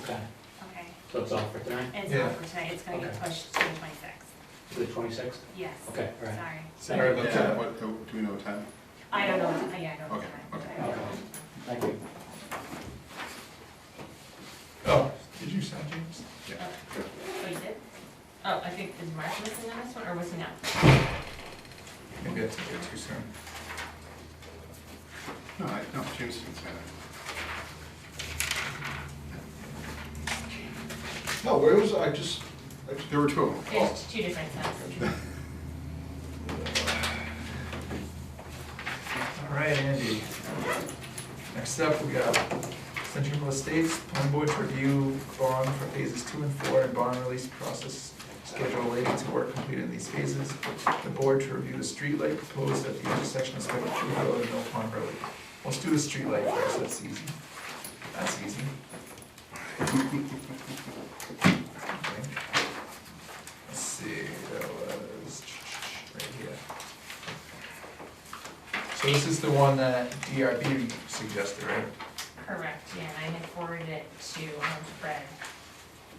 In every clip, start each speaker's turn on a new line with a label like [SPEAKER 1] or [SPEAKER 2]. [SPEAKER 1] Okay,
[SPEAKER 2] Okay,
[SPEAKER 1] so it's all for tonight,
[SPEAKER 2] and it's
[SPEAKER 3] Yeah.
[SPEAKER 2] not for tonight, it's gonna get
[SPEAKER 1] Okay.
[SPEAKER 2] pushed to the twenty-sixth,
[SPEAKER 1] the twenty-sixth?
[SPEAKER 2] yes,
[SPEAKER 1] Okay, all right.
[SPEAKER 2] sorry.
[SPEAKER 3] All right, let's,
[SPEAKER 4] Yeah.
[SPEAKER 3] what, uh, do we know what time?
[SPEAKER 2] I don't know, yeah, I don't know.
[SPEAKER 3] Okay,
[SPEAKER 2] the time.
[SPEAKER 3] okay.
[SPEAKER 2] I don't know.
[SPEAKER 1] Thank you.
[SPEAKER 3] Oh, did you sign, James? Yeah.
[SPEAKER 2] Oh, you did? Oh, I think, is Mark listening on this one, or was he not?
[SPEAKER 3] Maybe I took it too soon. No, I, no, James didn't sign it.
[SPEAKER 4] No, where was, I just, I just,
[SPEAKER 3] There were two of them.
[SPEAKER 2] There's two different sets.
[SPEAKER 3] All right, Andy. Next up, we got Central Estates, Plan Board to review bond for phases two and four and bond release process schedule relating to work completed in these phases. The board to review the streetlight proposed at the intersection of Spectrum Tree Road and Mill Pond Road. Let's do the streetlight first, that's easy. That's easy. Okay. Let's see, that was right here. So this is the one that DRB suggested, right?
[SPEAKER 2] Correct, yeah, and I had forwarded it to um, Fred.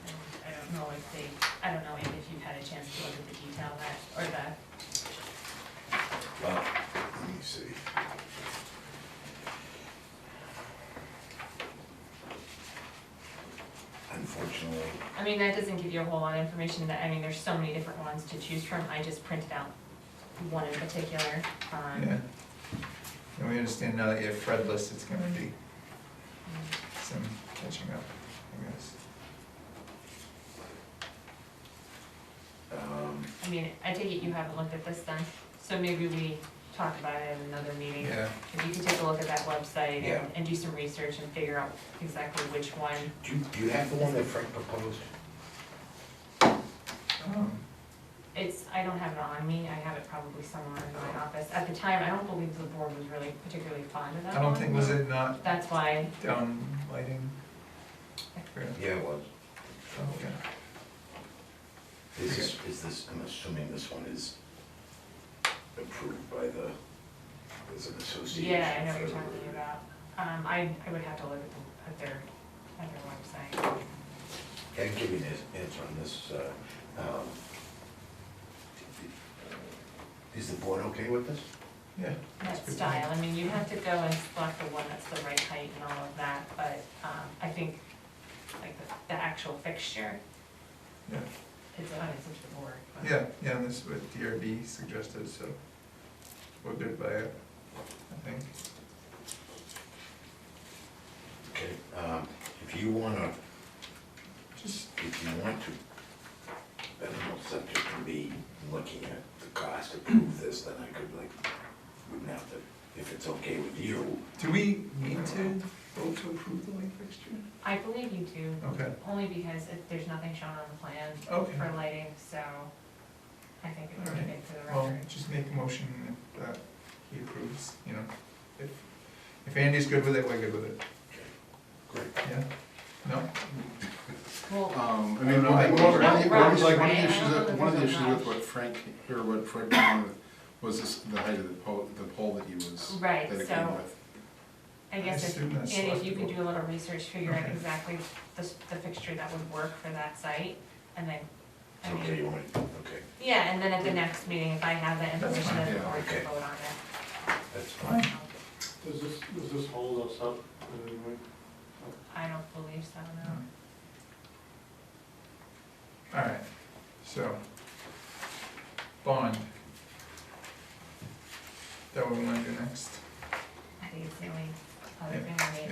[SPEAKER 2] And I don't know if they, I don't know if you've had a chance to look at the detail that, or the,
[SPEAKER 4] Oh, wow, let me see. Unfortunately,
[SPEAKER 2] I mean, that doesn't give you a whole lot of information, that, I mean, there's so many different ones to choose from, I just printed out one in particular. um,
[SPEAKER 3] Yeah. And we understand now that you have Fred list, it's gonna be some catching up, I guess.
[SPEAKER 4] um,
[SPEAKER 2] I mean, I take it you haven't looked at this then, so maybe we talk about it in another meeting.
[SPEAKER 3] Yeah,
[SPEAKER 2] If you can take a look at that website
[SPEAKER 4] Yeah.
[SPEAKER 2] and, and do some research and figure out exactly which one.
[SPEAKER 4] do you, do you have the one that Frank proposed?
[SPEAKER 3] um,
[SPEAKER 2] It's, I don't have it on me, I have it probably somewhere in my office. At the time, I don't believe the board was really particularly fond of that
[SPEAKER 3] I don't
[SPEAKER 2] one.
[SPEAKER 3] think, was it not
[SPEAKER 2] That's why,
[SPEAKER 3] down lighting? I forgot.
[SPEAKER 4] Yeah, it was.
[SPEAKER 3] Oh, yeah.
[SPEAKER 4] This is, is this, I'm assuming this one is approved by the, there's an association.
[SPEAKER 2] yeah, I know what you're
[SPEAKER 4] for-
[SPEAKER 2] talking about. Um, I, I would have to look at the, at their, at their website.
[SPEAKER 4] Can I give you an ans- answer on this? uh, um, Is the board okay with this?
[SPEAKER 3] Yeah. that's
[SPEAKER 2] That
[SPEAKER 3] good.
[SPEAKER 2] style, I mean, you have to go and select the one that's the right height and all of that, but, um, I think, like, the, the actual fixture
[SPEAKER 3] Yeah,
[SPEAKER 2] is on its own board. but-
[SPEAKER 3] yeah, yeah, and this is what DRB suggested, so we're good by it, I think.
[SPEAKER 4] Okay. um, If you wanna,
[SPEAKER 3] Just,
[SPEAKER 4] if you want to, I don't know, subject to me looking at the cost to prove this, then I could like, wouldn't have to, if it's okay with you.
[SPEAKER 3] do we need to vote to approve the light fixture?
[SPEAKER 2] I believe you do,
[SPEAKER 3] Okay,
[SPEAKER 2] only because it, there's nothing shown on the plan
[SPEAKER 3] okay.
[SPEAKER 2] for lighting, so I think it would be good for the
[SPEAKER 3] Well,
[SPEAKER 2] record.
[SPEAKER 3] just make a motion if uh, he approves, you know, if, if Andy's good with it, we're good with it,
[SPEAKER 4] Great.
[SPEAKER 3] yeah? No?
[SPEAKER 2] Well,
[SPEAKER 5] Um, I
[SPEAKER 3] I don't
[SPEAKER 5] mean,
[SPEAKER 3] know,
[SPEAKER 5] one
[SPEAKER 3] like,
[SPEAKER 5] of the, one
[SPEAKER 2] Rob-
[SPEAKER 5] of the- one of
[SPEAKER 2] Rob's
[SPEAKER 5] the- like, one of
[SPEAKER 2] right, I
[SPEAKER 5] the issues,
[SPEAKER 2] don't know
[SPEAKER 5] that-
[SPEAKER 2] that
[SPEAKER 5] one of the
[SPEAKER 2] there's a
[SPEAKER 5] issues
[SPEAKER 2] Rob.
[SPEAKER 5] with what Frank, or what Fred came with, was this, the height of the pole, the pole that he
[SPEAKER 3] uh,
[SPEAKER 5] was, that
[SPEAKER 2] right,
[SPEAKER 5] it came with.
[SPEAKER 2] so I guess if,
[SPEAKER 3] assume
[SPEAKER 2] and
[SPEAKER 3] that's
[SPEAKER 2] if you could
[SPEAKER 3] selectable.
[SPEAKER 2] do a little research, figure out
[SPEAKER 3] Okay.
[SPEAKER 2] exactly the, s- the fixture that would work for that site, and then, I mean,
[SPEAKER 4] Okay, you want, it? okay,
[SPEAKER 2] Yeah, and then at the next meeting, if I have that
[SPEAKER 3] That's
[SPEAKER 2] information,
[SPEAKER 3] fine,
[SPEAKER 2] then the
[SPEAKER 5] yeah,
[SPEAKER 2] board can
[SPEAKER 4] okay.
[SPEAKER 2] vote on it.
[SPEAKER 4] that's fine.
[SPEAKER 6] Does this, does this hold us up in any way?
[SPEAKER 2] I don't believe so, no.
[SPEAKER 4] Hmm.
[SPEAKER 3] Alright, so, bond. That what we wanna do next?
[SPEAKER 2] I think it's the only other thing
[SPEAKER 3] Yeah,
[SPEAKER 2] I need.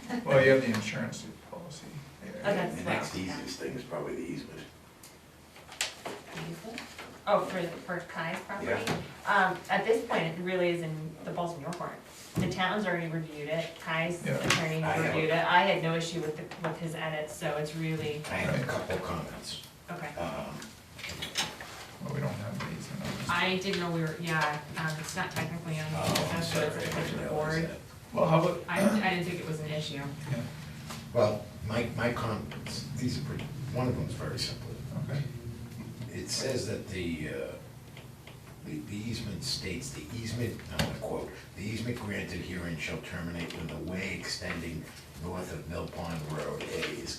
[SPEAKER 3] yeah. Well, you have the insurance policy.
[SPEAKER 2] Oh,
[SPEAKER 3] Yeah.
[SPEAKER 2] that's
[SPEAKER 4] The
[SPEAKER 2] fine,
[SPEAKER 4] next
[SPEAKER 2] yeah.
[SPEAKER 4] easiest thing is probably the easement.
[SPEAKER 2] Oh, for, for Kai's property?
[SPEAKER 4] Yeah.
[SPEAKER 2] Um, at this point, it really is in the balls in your court. The town's already reviewed it, Kai's
[SPEAKER 3] Yeah.
[SPEAKER 2] attorney
[SPEAKER 4] I know.
[SPEAKER 2] reviewed it, I had no issue with, the with his edits, so it's really,
[SPEAKER 4] I have a couple comments.
[SPEAKER 2] okay.
[SPEAKER 4] Um,
[SPEAKER 3] Well, we don't have these in ours.
[SPEAKER 2] I didn't know we were, yeah, um, it's not technically on the,
[SPEAKER 4] Oh, I'm
[SPEAKER 2] agenda, so
[SPEAKER 4] sorry, I
[SPEAKER 2] it's a
[SPEAKER 4] didn't
[SPEAKER 2] question of the
[SPEAKER 4] realize
[SPEAKER 2] board.
[SPEAKER 4] that.
[SPEAKER 3] Well, how about,
[SPEAKER 2] I, I didn't think it was an issue.
[SPEAKER 3] yeah,
[SPEAKER 4] Well, my, my comments, these are pretty, one of them's very simple.
[SPEAKER 3] okay,
[SPEAKER 4] It says that the, uh, the the easement states, the easement, I'm gonna quote, "The easement granted herein shall terminate when the way extending north of Mill Pond Road A is